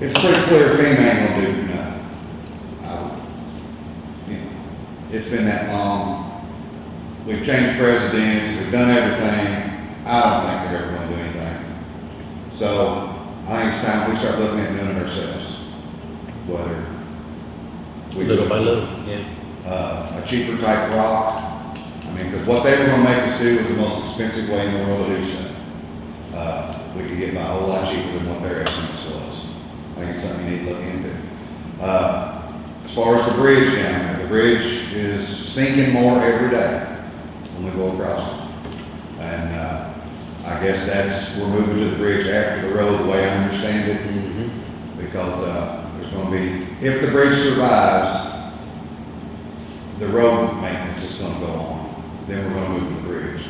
It's pretty clear FEMA ain't gonna do nothing. I- you know, It's been that long. We've changed presidents, we've done everything. I don't think they're ever gonna do anything. So I think it's time we start looking at doing it ourselves. Whether. we Little put, by little, yeah. Uh, a cheaper type rock. I mean, because what they were gonna make us do was the most expensive way in the world to do so. Uh, we could get by a whole lot cheaper than what their estimates was. I think it's something you need to look into. Uh, as far as the bridge down there, the bridge is sinking more every day when we go across it. And, uh, I guess that's, we're moving to the bridge after the road, the way I understand it Mhm. because uh, there's going to be, if the bridge survives, the road maintenance is going to go on. Then we're going to move to the bridge.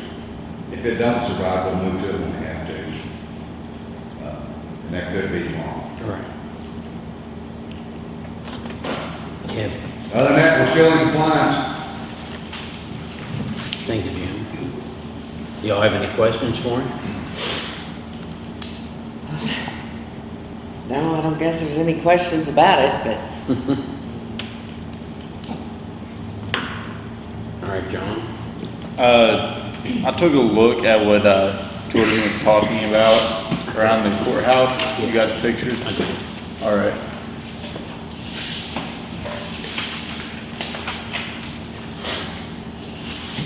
If it don't survive, we'll move to it when we have to. Uh, And that could be tomorrow. All right. Yeah, Other than that, we're still in compliance. thank you, Jim. Y'all have any questions for him? No, I don't guess there's any questions about it, but All right, John? Uh, I took a look at what uh, Jordan was talking about around the courthouse. You got the pictures? I do. All right.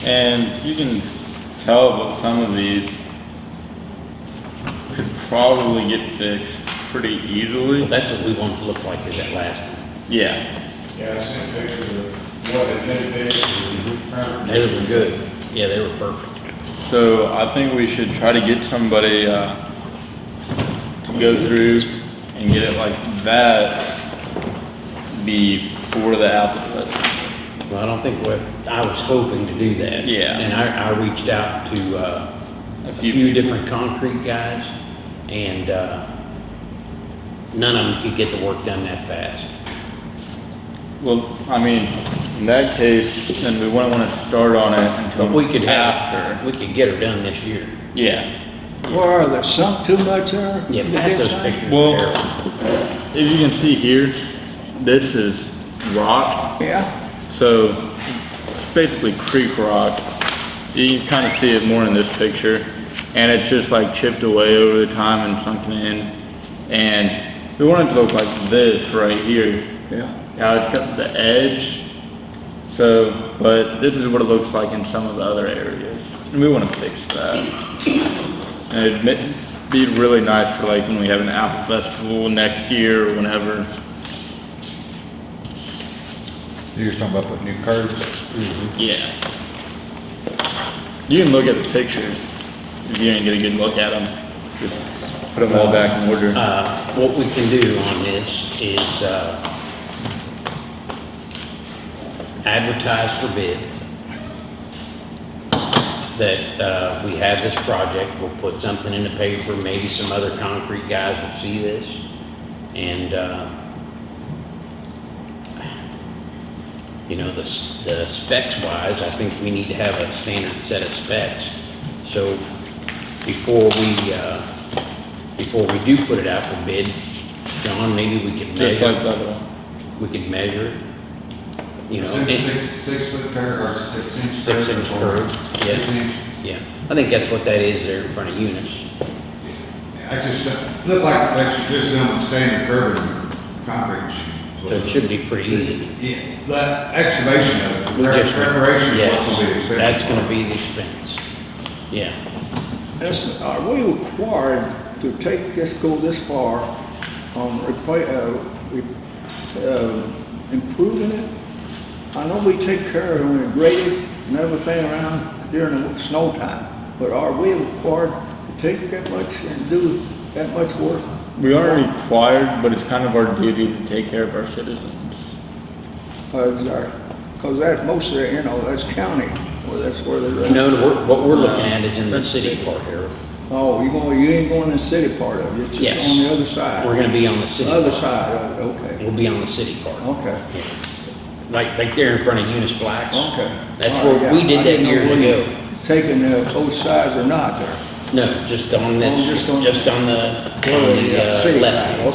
And you can tell that some of these could probably get fixed pretty Well, easily. That's what we want it to look like is that last one. Yeah, Yeah, I sent pictures of what had been fixed and how- They were good. Yeah, they were perfect. so I think we should try to get somebody, uh, to go through and get it like that before the applicant. Well, I don't think what, I was hoping to do that. Yeah. And I, I reached out to, uh, a A few few people. different concrete guys and, uh, none of them could get the work done that fast. Well, I mean, in that case, then we wouldn't want to start on it until But we could have, after. we could get her done this year. Yeah. Where are they, sunk too much there? Yeah, The pass big those time? pictures. Well, Carol. if you can see here, this is rock, Yeah, so it's basically creek rock. You can kind of see it more in this picture, and it's just like chipped away over the time and sunken in. And we want it to look like this right here. yeah. Now it's got the edge, so, but this is what it looks like in some of the other areas. And we want to fix that. And it'd mi- be really nice for like when we have an apple festival next year or whenever. You was talking about putting new curbs? Yeah. You can look at the pictures if you didn't get a good look at them. Just put them all back in order. Uh, what we can do on this is, uh, advertise for bid. That, uh, we have this project, we'll put something in the paper, maybe some other concrete guys will see this. And, uh, you know, the, s- the specs wise, I think we need to have a standard set of specs. So before we, uh, before we do put it out for bid, John, maybe we could Just like measure, that one. we could measure, you know. Is it it- six, six foot curb or six inch curb? Six inch curb, yeah. Six inch? Yeah, I think that's what that is there in front of Eunice. I just, uh, look like, that's just doing the standard curb and concrete. So it should be pretty easy. Yeah, the excavation of We it, just- preparation is what's gonna be Yes, expensive. that's gonna be the expense. Yeah, This, are we required to take this, go this far on repla, uh, re- uh, improving it? I know we take care of it when we grade it and everything around during the snow time, but are we required to take that much and do that much work? We aren't required, but it's kind of our duty to take care of our citizens. Because our, because that's most of, the- you know, that's county, where that's where they're at. no, we're- what we're looking at is in the city part here. Oh, you going, you ain't going in the city part of it, it's just Yes. on the other side? We're gonna be on the city. Other part. side, of it, okay, We'll be on the city part, okay, like, like there in front of Eunice Blacks. okay. That's All right, where, we yeah, I did that didn't know years whether ago. Taking the both sides or not there. No, just on Oh, this, just on- just on the, on yeah, the uh, city left. side,